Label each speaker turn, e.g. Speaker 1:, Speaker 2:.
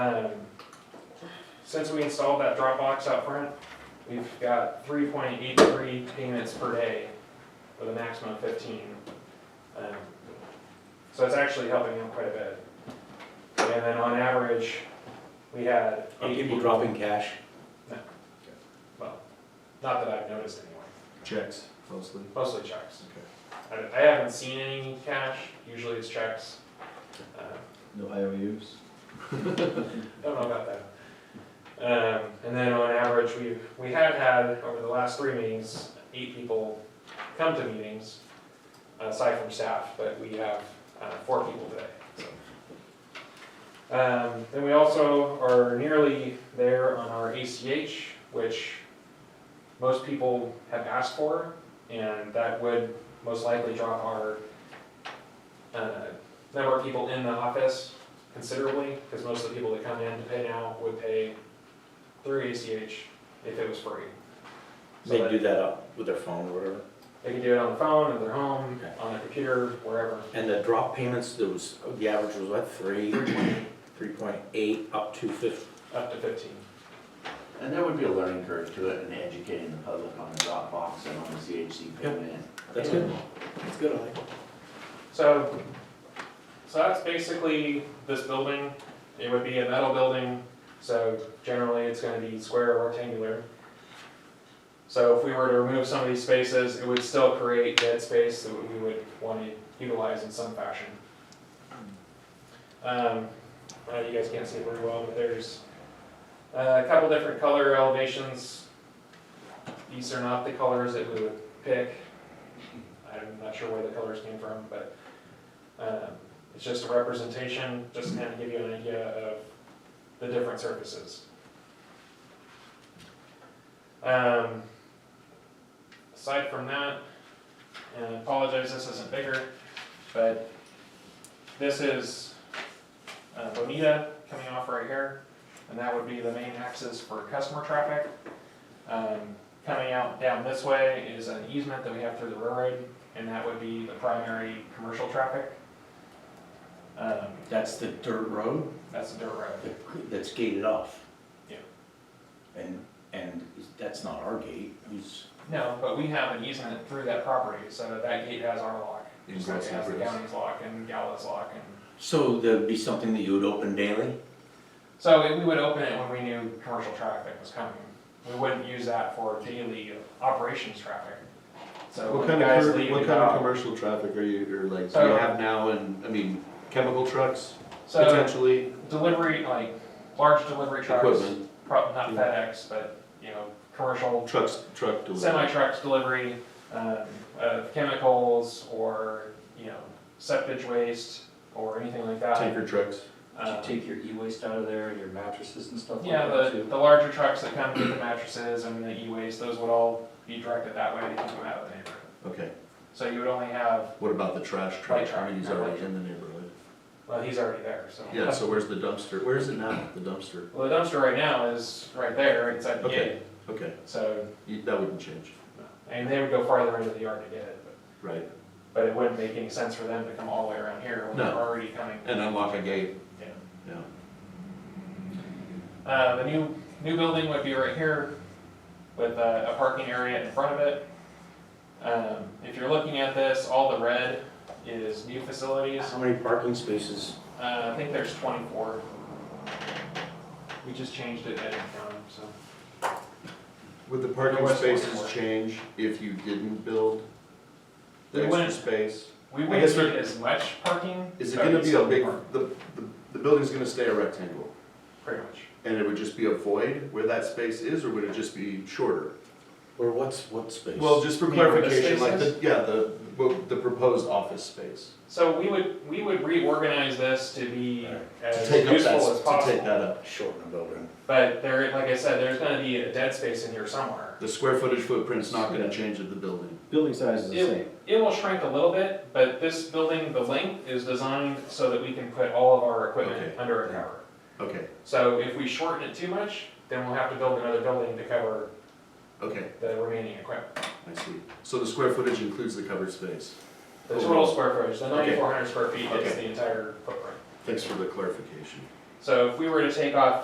Speaker 1: Um, Since we installed that drop box out front, we've got three point eight three payments per day with a maximum of fifteen. Um, So it's actually helping them quite a bit. And then on average, we had
Speaker 2: Are
Speaker 1: eight
Speaker 2: people
Speaker 1: people,
Speaker 2: dropping cash?
Speaker 1: well, not that I've noticed anyway,
Speaker 3: Checks mostly.
Speaker 1: mostly checks.
Speaker 3: Okay.
Speaker 1: I, I haven't seen any cash, usually it's checks. Um,
Speaker 3: No IOUs.
Speaker 1: Don't know about that. Um, and then on average, we've, we have had, over the last three meetings, eight people come to meetings, aside from staff, but we have, uh, four people today, so. Um, then we also are nearly there on our ACH, which most people have asked for, and that would most likely drop our, uh, number of people in the office considerably, because most of the people that come in to pay now would pay through ACH if it was free. So
Speaker 2: They
Speaker 1: that-
Speaker 2: do that up with their phone or whatever.
Speaker 1: They can do it on the phone, in their home,
Speaker 2: Okay.
Speaker 1: on their computer, wherever.
Speaker 2: And the drop payments, there was, the average was what, three, three point eight up to fifty?
Speaker 1: Up to fifteen.
Speaker 4: And there would be a learning curve to it and educating the public on the Dropbox and on the CHC payment.
Speaker 2: That's good. That's good, I like it.
Speaker 1: So, so that's basically this building. It would be a metal building, so generally it's gonna be square or rectangular. So if we were to remove some of these spaces, it would still create dead space that we would wanna utilize in some fashion. Um, uh, you guys can't see it very well, but there's uh, a couple different color elevations. These are not the colors that we would pick. I'm not sure where the colors came from, but um, It's just a representation, just to kind of give you an idea of the different surfaces. Um, Aside from that, and I apologize, this isn't bigger, but this is uh, Bonita coming off right here, and that would be the main axis for customer traffic. Um, Coming out down this way is an easement that we have through the railroad, and that would be the primary commercial traffic. Um,
Speaker 2: That's the dirt road
Speaker 1: that's a dirt road.
Speaker 2: that- that's gated off.
Speaker 1: Yeah.
Speaker 2: And, and that's not our gate, who's,
Speaker 1: No, but we have an easement through that property, so that gate has our lock.
Speaker 3: In
Speaker 1: Just like it has the
Speaker 3: Grasshoppers.
Speaker 1: county's lock and Gala's lock and,
Speaker 2: so there'd be something that you would open daily?
Speaker 1: so we- we would open it when we knew commercial traffic was coming. We wouldn't use that for daily operations traffic. So
Speaker 3: What
Speaker 1: when
Speaker 3: kind
Speaker 1: guys
Speaker 3: of,
Speaker 1: leave Uh,
Speaker 3: what
Speaker 1: the
Speaker 3: kind of
Speaker 1: job,
Speaker 3: commercial traffic are you, or like, do
Speaker 1: So-
Speaker 3: you have now and, I mean, chemical trucks
Speaker 1: so
Speaker 3: potentially?
Speaker 1: delivery, like, large delivery trucks,
Speaker 3: Equipment,
Speaker 1: prob- not
Speaker 3: Yeah.
Speaker 1: FedEx, but, you know, commercial
Speaker 3: trucks, truck
Speaker 1: semi
Speaker 3: delivery.
Speaker 1: trucks delivery um, of chemicals or, you know, septic waste or anything like that.
Speaker 3: Tanker trucks.
Speaker 5: Did
Speaker 1: Um,
Speaker 5: you take your e-waste out of there, and your mattresses and stuff like
Speaker 1: Yeah,
Speaker 5: that
Speaker 1: the,
Speaker 5: too?
Speaker 1: the larger trucks that come with the mattresses and the e-waste, those would all be directed that way to keep them out of the neighborhood.
Speaker 3: Okay,
Speaker 1: So you would only have,
Speaker 3: what about the trash
Speaker 1: Light
Speaker 3: truck?
Speaker 1: truck,
Speaker 3: I mean, he's
Speaker 1: not
Speaker 3: already
Speaker 1: light.
Speaker 3: in the neighborhood.
Speaker 1: well, he's already there, so.
Speaker 3: Yeah, so where's the dumpster? Where is it now, the dumpster?
Speaker 1: Well, the dumpster right now is right there, it's at the
Speaker 3: Okay.
Speaker 1: gate,
Speaker 3: Okay,
Speaker 1: so,
Speaker 3: you- that wouldn't change,
Speaker 1: and they would go farther into the yard to get it, but,
Speaker 3: right?
Speaker 1: but it wouldn't make any sense for them to come all the way around here when they're
Speaker 3: No.
Speaker 1: already coming
Speaker 3: And unlock a gate,
Speaker 1: down.
Speaker 3: yeah.
Speaker 1: Uh, the new, new building would be right here with a, a parking area in front of it. Um, if you're looking at this, all the red is new facilities.
Speaker 2: How many parking spaces?
Speaker 1: Uh, I think there's twenty-four. We just changed it at county, so.
Speaker 3: Would the
Speaker 1: There
Speaker 3: parking
Speaker 1: was one more.
Speaker 3: spaces change if you didn't build
Speaker 1: They
Speaker 3: the extra
Speaker 1: wouldn't.
Speaker 3: space?
Speaker 1: We
Speaker 3: I guess
Speaker 1: wouldn't need as much parking.
Speaker 3: Is it
Speaker 1: but
Speaker 3: gonna
Speaker 1: it's
Speaker 3: be a
Speaker 1: still
Speaker 3: big,
Speaker 1: park,
Speaker 3: the, the, the building's gonna stay a rectangle?
Speaker 1: Pretty much.
Speaker 3: And it would just be a void where that space is, or would it just be shorter?
Speaker 2: Or what's, what space?
Speaker 3: Well, just for
Speaker 1: You mean where the
Speaker 3: clarification, like
Speaker 1: space
Speaker 3: the, yeah, the, what- the proposed office space.
Speaker 1: So we would, we would reorganize this to be
Speaker 2: Right.
Speaker 3: To
Speaker 1: as
Speaker 3: take up
Speaker 1: useful
Speaker 3: that,
Speaker 1: as
Speaker 3: to take
Speaker 1: possible.
Speaker 3: that up.
Speaker 2: Shorten the building.
Speaker 1: But there, like I said, there's gonna be a dead space in here somewhere.
Speaker 3: The square footage footprint's not gonna change of the building.
Speaker 5: Building size is
Speaker 1: It, it will shrink a little bit, but this building, the length is designed so that we can put all of our equipment
Speaker 3: Okay.
Speaker 1: under a cover.
Speaker 3: Okay,
Speaker 1: So if we shorten it too much, then we'll have to build another building to cover
Speaker 3: okay,
Speaker 1: the remaining equipment.
Speaker 3: I see. So the square footage includes the covered space.
Speaker 1: The total square footage, the
Speaker 3: Okay.
Speaker 1: ninety-four hundred square feet is
Speaker 3: Okay.
Speaker 1: the entire footprint.
Speaker 3: Thanks for the clarification.
Speaker 1: So if we were to take off